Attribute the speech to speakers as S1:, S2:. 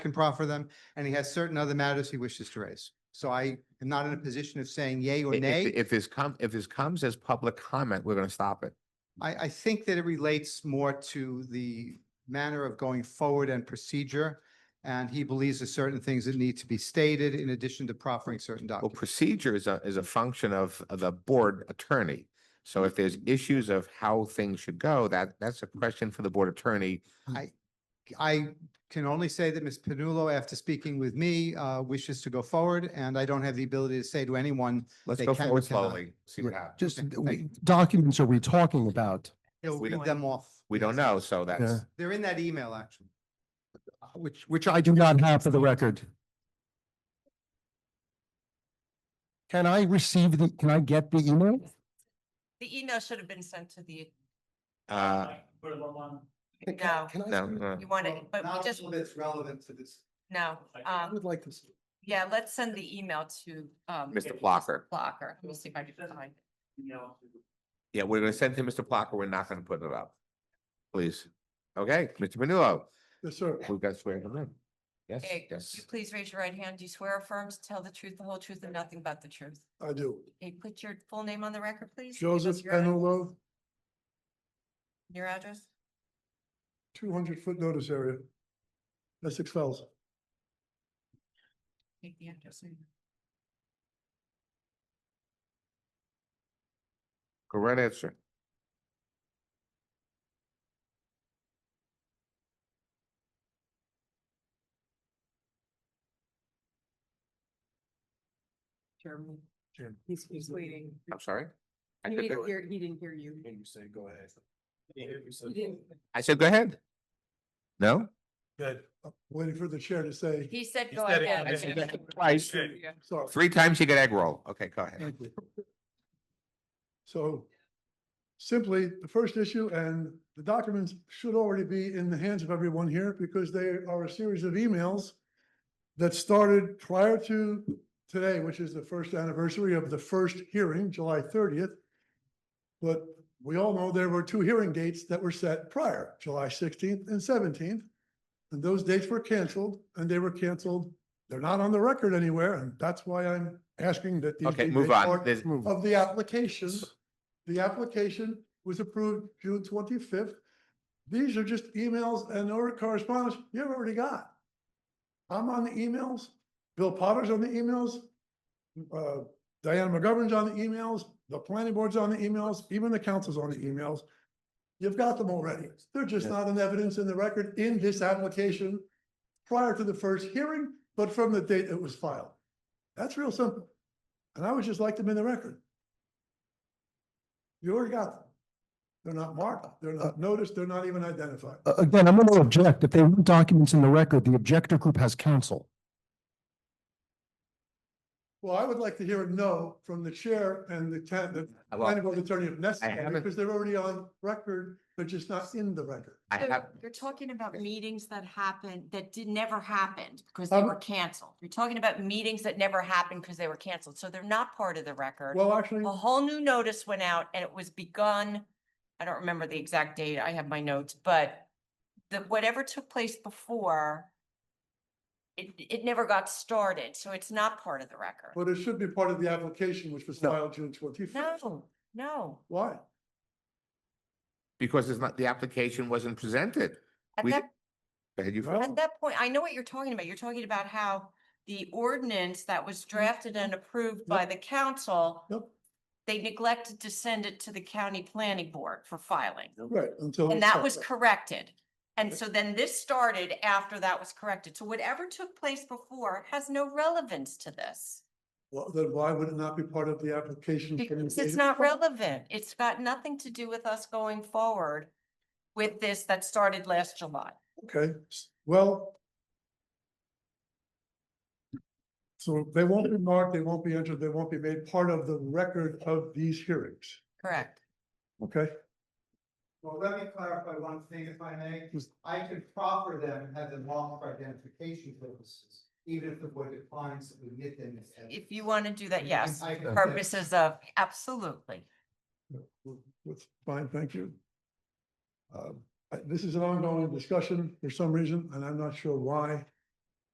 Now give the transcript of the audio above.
S1: can proffer them, and he has certain other matters he wishes to raise. So I am not in a position of saying yay or
S2: If-
S1: nay.
S2: If this come, if this comes as public comment, we're gonna stop it.
S1: I, I think that it relates more to the manner of going forward and procedure. And he believes there's certain things that need to be stated in addition to proffering certain
S2: Well,
S1: documents.
S2: Uh, procedure is a, is a function of of the board attorney. So if there's issues of how things should go, that, that's a question for the board attorney.
S1: I can only say that Ms. Panulo, after speaking with me, uh, wishes to go forward, and I don't have the ability to say to anyone,
S2: Let's
S1: They
S2: go
S1: can or
S2: forward
S1: cannot.
S2: slowly, see what
S3: Right.
S2: happens.
S3: Just
S1: Okay,
S3: th- we-
S1: thank
S3: documents are we talking about?
S1: he'll
S2: We
S1: read
S2: don't-
S1: them off.
S2: We don't know, so
S3: Yeah.
S2: that's,
S1: They're in that email, actually.
S3: Which, which I do not have for the record. Can I receive the, can I get the email?
S4: The email should have been sent to the,
S2: uh,
S5: Put it on-
S4: no,
S3: Can I-
S2: no, no.
S4: you want it, but we
S1: Not
S4: just,
S1: all that's relevant to this.
S4: no.
S3: I
S4: Um,
S3: would like to. see-
S4: yeah, let's send the email to, um.
S2: Mr. Blocker.
S4: Blocker. We'll see if I can find it.
S5: you know,
S2: Yeah, we're gonna send to Mr. Plucker. We're not gonna put it up. Please. Okay, Mr. Manullo,
S3: Yes, sir.
S2: we've got swearing him in. Yes,
S4: Okay,
S2: yes.
S4: you Please raise your right hand. Do you swear or affirm to tell the truth, the whole truth, and nothing but the truth?
S6: I do.
S4: Okay, put your full name on the record, please. Give us
S6: Joseph
S4: your ad-
S6: Penolo,
S4: Your address?
S6: two hundred foot notice area. Essex Fells.
S4: Take the address.
S2: Correct answer.
S7: Chairman.
S6: Chairman.
S7: He's, he's waiting.
S2: I'm sorry. I
S7: He
S2: said,
S7: didn't
S2: go-
S7: hear, he didn't hear you.
S6: You say go ahead.
S7: He didn't-
S2: I said, go ahead. No?
S6: Good. Waiting for the chair to say,
S4: He said
S5: He
S4: go
S5: said it.
S2: I
S4: ahead.
S2: said go ahead Twice,
S6: sorry.
S2: three times you get egg roll. Okay, go ahead.
S6: Thank you. So simply, the first issue and the documents should already be in the hands of everyone here because they are a series of emails that started prior to today, which is the first anniversary of the first hearing, July thirtieth. But we all know there were two hearing dates that were set prior, July sixteenth and seventeenth. And those dates were canceled and they were canceled. They're not on the record anywhere, and that's why I'm asking that these
S2: Okay,
S6: be
S2: move
S6: made
S2: on.
S6: part
S2: There's-
S3: Move.
S6: of the application. The application was approved June twenty-fifth. These are just emails and other correspondence you've already got. I'm on the emails, Bill Potter's on the emails, uh, Diana McGovern's on the emails, the planning board's on the emails, even the council's on the emails. You've got them already. They're just not in evidence in the record in this application prior to the first hearing, but from the date it was filed. That's real simple. And I would just like them in the record. You already got them. They're not marked, they're not noticed, they're not even identified.
S3: A- uh, Again, I'm going to object. If they want documents in the record, the objector group has counsel.
S6: Well, I would like to hear a no from the chair and the town, the
S2: I will-
S6: planning board attorney if necessary,
S2: haven't-
S6: because they're already on record, but just not in the record.
S2: I
S4: So
S2: have,
S4: You're talking about meetings that happened, that did, never happened because they
S6: Um,
S4: were canceled. You're talking about meetings that never happened because they were canceled. So they're not part of the record. Oh.
S6: Well, actually,
S4: A whole new notice went out and it was begun, I don't remember the exact date, I have my notes, but the, whatever took place before, it, it never got started, so it's not part of the record.
S6: but it should be part of the application, which was
S3: No.
S6: filed June twenty-fifth.
S4: No, no.
S6: Why?
S2: because it's not, the application wasn't presented.
S4: At
S2: We-
S4: that,
S2: Go ahead, you.
S6: Well,
S1: Oh.
S4: at that point, I know what you're talking about. You're talking about how the ordinance that was
S1: Mm-hmm.
S4: drafted and approved by the council,
S6: Nope,
S4: they neglected to send it to the county planning board for filing.
S6: right,
S1: Oh,
S6: until.
S4: And that was corrected. And so then this started after that was corrected. So whatever took place before has no relevance to this.
S6: Well, then why would it not be part of the
S1: Oh,
S6: application? from the
S4: Because
S6: date
S4: it's
S6: it
S4: not
S6: was filed?
S4: relevant. It's got nothing to do with us going forward with this that started last July.
S6: Okay, s- well. So they won't be marked, they won't be entered, they won't be made part of the record of these hearings,
S4: Correct.
S6: okay?
S1: Well, let me clarify one thing, if I may. I can proffer them and have them off for identification purposes, even if the board declines to admit them. as evidence.
S4: If you want to do that, yes,
S1: I can-
S4: purposes of, absolutely.
S6: That's fine, thank you. Uh, Um, I- This is an ongoing discussion for some reason, and I'm not sure why.